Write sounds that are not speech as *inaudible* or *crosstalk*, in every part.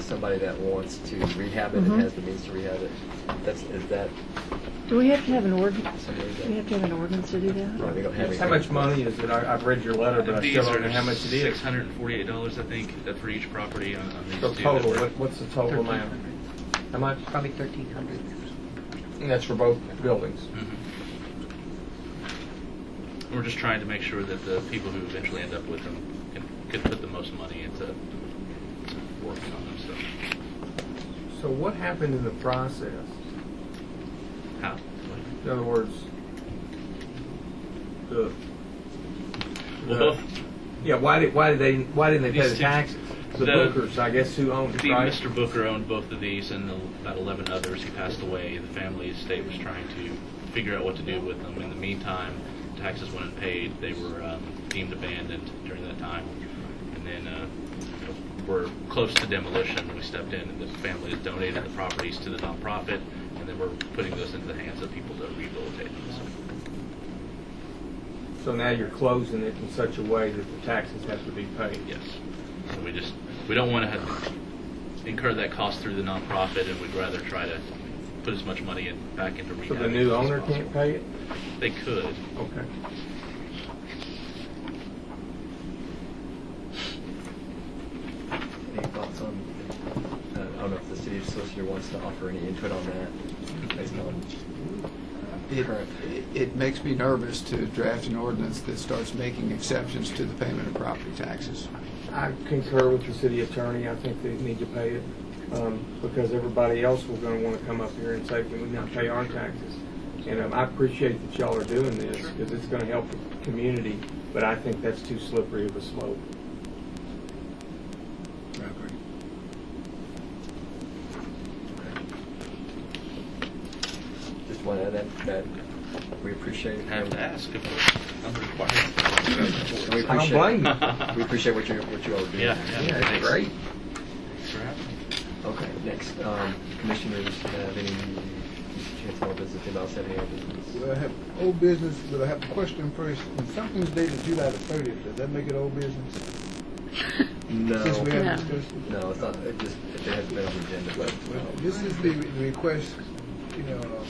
somebody that wants to rehab it Mhm. and has the means to rehab it, that's, is that Do we have to have an ordinance, somebody do we have that? to have an ordinance to do No, that? we don't have How anything. much money is it? I- I've read your letter, but I These still don't are know how much it six is. hundred and forty-eight dollars, I think, uh, for each property on, on these The two. total, what- what's the total amount? How much? Probably 1,300. And that's for both buildings. Mhm. We're just trying to make sure that the people who eventually end up with them can, can put the most money into working on them, so. So what happened in the process? How? In other words, the, Well, the- both, yeah, why did, why did they, why didn't they pay These the two- taxes? The the- Bookers, I guess, who owned it, The, right? Mr. Booker owned both of these and about 11 others. He passed away. The family estate was trying to figure out what to do with them. In the meantime, taxes went unpaid. They were um, deemed abandoned during that time. And then uh, we're close to demolition. We stepped in, and the family has donated the properties to the nonprofit. And then we're putting those into the hands of people to rehabilitate them. So So now you're closing it in such a way that the taxes have to be paid. yes, so we just we don't want to have incur that cost through the nonprofit, and we'd rather try to put as much money in, back into So rehab. the new as owner possible. can't pay it? They could. Okay. Any thoughts on, uh, I don't know if the city solicitor wants to offer any input on that, based on It, Correct. it makes me nervous to draft an ordinance that starts making exceptions to the payment of property taxes. I concur with the city attorney. I think they need to pay it um, because everybody else will going to want to come up here and say, we now pay our taxes. And um, I appreciate that y'all are doing this because it's going to help the community, but I think that's too slippery of a slope. uh, Just want to add that, that we appreciate. Have to ask if it's under required. We *laughs* I don't blame appreciate, you. we appreciate what you, what you all do. Yeah, Yeah, that's Thanks. great. Thanks for having me. Okay, next, um, commissioners have any, Mr. Chance, more business, anybody else have any other business? Well, I have old business, but I have a question first. When something's dated July the thirtieth, does that make it old business? Since we No, No. haven't discussed it? no, it's not, it just, it hasn't been on the agenda, but, Well, um, this is the re- request, you know, uh,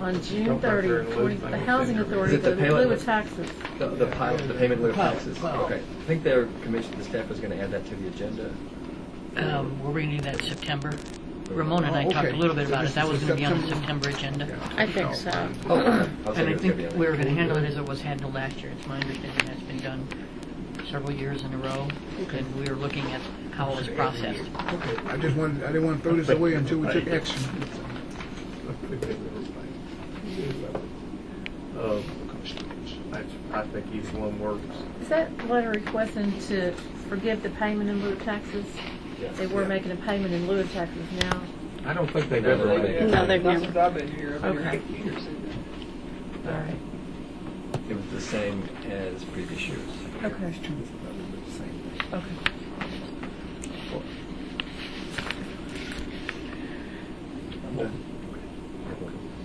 On June Don't go 30, through and we- lose my the whole housing finger. authority, Is it the the lieu payment? of taxes. the, the pile, the payment in lieu of Pile, taxes, pile. okay. I think their commission, the staff was gonna add that to the agenda. Um, We're bringing that in September. Ramona and I Oh, okay. talked a little bit So about this it. That is was the going to be on the September- September agenda. I think so. Oh, okay. I was thinking And I it was gonna think be on the- we were going to handle it as it was handled last year. It's my understanding that's been done several years in a row. And we were looking at how it was processed. okay, I just wanted, I didn't want to throw this away until we took action. *laughs* Uh, I- I think each one works. Is that letter requesting to forgive the payment in lieu of taxes? Yes. They were making a payment in lieu of taxes now. I don't think they've No, ever they- made it. No, they've That's never. what I've been hearing. Okay. All right, It was the same as previous years. okay, okay.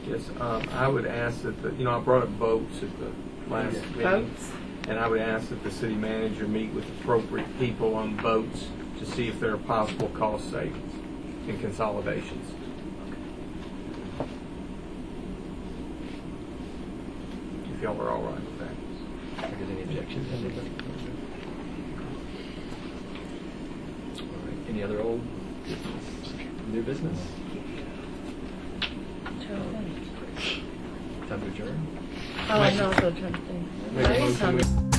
Yes, um, I would ask that, the- you know, I brought up boats at the last meeting. Votes? And I would ask that the city manager meet with appropriate people on boats to see if there are possible cost savings and consolidations. If y'all are all right with that. If there's any objections, I think- All right. Any other old business, new business? Trying to think. Time to adjourn? Oh, I'm also trying to think. Make a Maybe motion, some- we-